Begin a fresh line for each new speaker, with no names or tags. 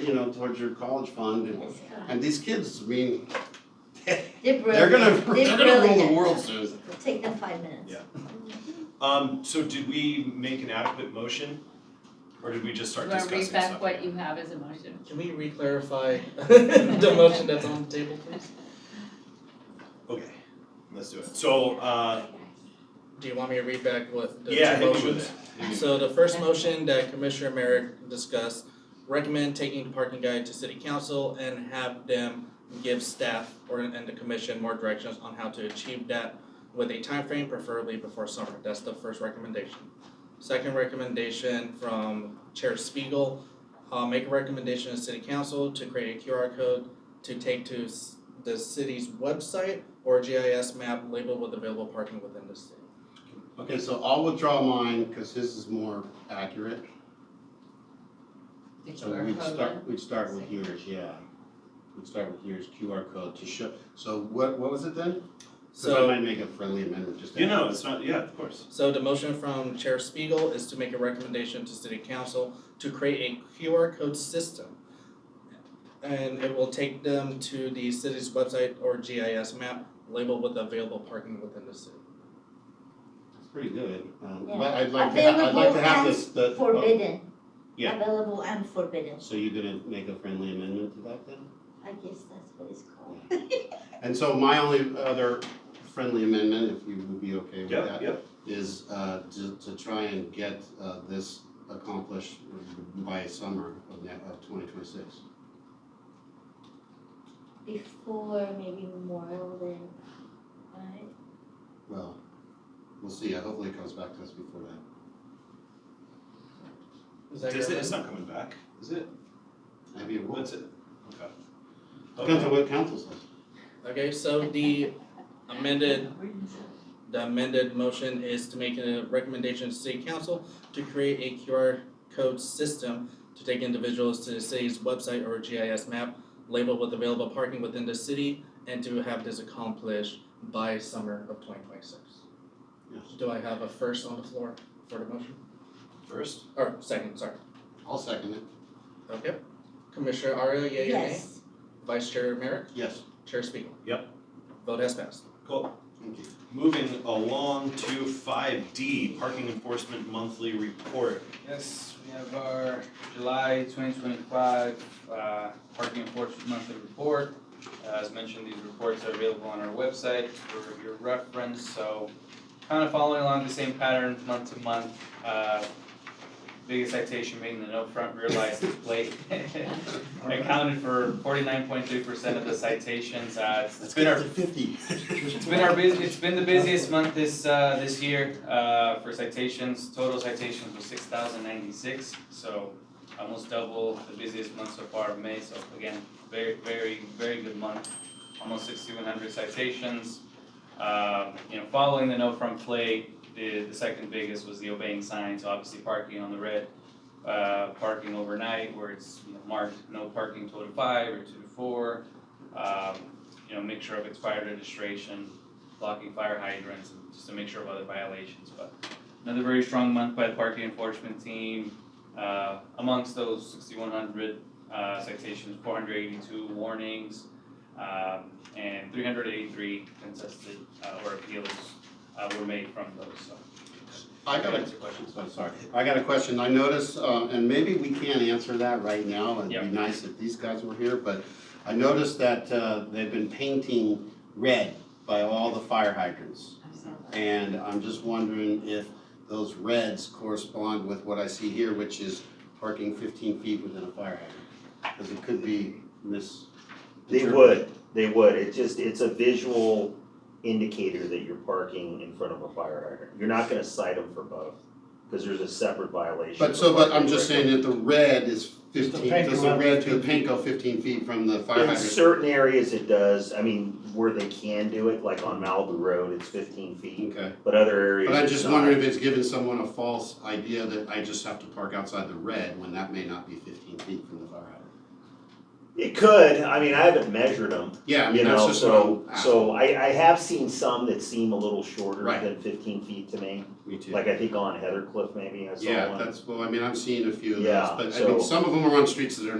you know, towards your college fund and, and these kids, I mean,
They're
they're gonna,
brilliant,
they're gonna
they're
rule
brilliant.
the world, Susan.
It'll Take them five minutes.
Yeah. Um, so did we make an adequate motion? Or did we just start
You wanna
discussing
read
stuff?
back what you have as a motion?
Can we re-clarify the motion that's on the table, please?
Okay, let's do it. So, uh,
Do you want me to read back what the two
yeah,
motions?
hit me with it. Hit me with it.
So the first motion that Commissioner Merrick discussed, recommend taking the parking guide to city council and have them give staff or and the commission more directions on how to achieve that with a time frame, preferably before summer. That's the first recommendation. Second recommendation from Chair Spiegel, uh make a recommendation to city council to create a QR code to take to s- the city's website or GIS map labeled with available parking within the city.
Okay, so I'll withdraw mine, cause his is more accurate,
The
so
QR
we'd
code
start,
one?
we'd start with yours, yeah. We'd start with yours QR code to show, so what, what was it then? 'Cause
So.
I might make a friendly amendment just to.
You know, it's not, yeah, of course.
So the motion from Chair Spiegel is to make a recommendation to City Council to create a QR code system. And it will take them to the city's website or GIS map labeled with available parking within the city.
It's pretty good, um,
Yeah.
but I'd like to, ha- I'd like to have this, the. oh,
Forbidden.
yeah.
Available and forbidden,
So you're gonna make a friendly amendment to that then?
I guess that's what it's called.
And so my only other friendly amendment, if you would be okay with
Yep,
that,
yep.
is uh to to try and get uh this accomplished by summer of ne- of twenty twenty six.
Before maybe Memorial Day, right?
Well, we'll see, Uh, hopefully it comes back to us before that.
Is that your
Is it, it's not
amendment?
coming back, is it?
Maybe it will,
That's it. Okay.
depends on
Okay.
what council says.
Okay, so the amended, the amended motion is to make a recommendation to City Council to create a QR code system to take individuals to the city's website or GIS map labeled with available parking within the city and to have this accomplished by summer of twenty twenty-six.
Yes.
Do I have a first on the floor for the motion?
First,
Or second, sorry.
I'll second it,
Okay. Commissioner Arroyo, yea or nay?
Yes,
Vice Chair Merrick,
yes,
Chair Spiegel.
Yep.
Vote has passed.
cool.
thank you.
Moving along to five D, parking enforcement monthly report.
Yes, we have our July twenty twenty-five, uh, parking enforcement monthly report. Uh, As mentioned, these reports are available on our website for your reference, so kind of following along the same pattern month to month. Uh, Biggest citation being the no front rear license plate. Accounted for forty-nine point three percent of the citations, uh, it's been our
fifty.
it's been our busy, it's been the busiest month this uh this year uh for citations, total citations was six thousand ninety-six, so almost double the busiest month so far of May, so again, very, very, very good month, almost sixty-one hundred citations. Um you know, following the no front plate, the the second biggest was the obeying signs, obviously parking on the red, uh parking overnight where it's, you know, marked no parking till to five or two to four. Um, you know, make sure of expired registration, blocking fire hydrants, and just to make sure of other violations, but another very strong month by the parking enforcement team. Uh, amongst those sixty-one hundred, uh, citations, four hundred eighty-two warnings, um, and three hundred eighty-three contested, uh, or appeals, uh, were made from those, so.
I got a
Answer questions.
I'm sorry, I got a question, I noticed, um, and maybe we can't answer that right now, it'd
Yeah.
be nice if these guys were here, but I noticed that, uh, they've been painting red by all the fire hydrants. And I'm just wondering if those reds correspond with what I see here, which is parking fifteen feet within a fire hydrant. Cause it could be mis.
They would, they would, it just, it's a visual indicator that you're parking in front of a fire hydrant, you're not gonna cite them for both, cause there's a separate violation.
But
for
so, but
parking
I'm just
right
saying that the red is fifteen,
paint
does the
around
red, the
15
paint go fifteen feet from the fire
In
hydrant?
certain areas it does, I mean, where they can do it, like on Malibu Road, it's fifteen feet,
Okay.
but other areas
But I'm
it's
just
not.
wondering if it's giving someone a false idea that I just have to park outside the red when that may not be fifteen feet from the fire hydrant.
It could, I mean, I haven't measured them,
Yeah, I
you
mean, that's
know,
just what I'm
so, so I, I have seen some that seem a little shorter
Right.
than fifteen feet to me,
asking. Me too.
like I think on Heather Cliff maybe, I saw one.
Yeah, that's, well, I mean, I'm seeing a few of
Yeah,
those, but I mean,
so-
some of them are on streets that are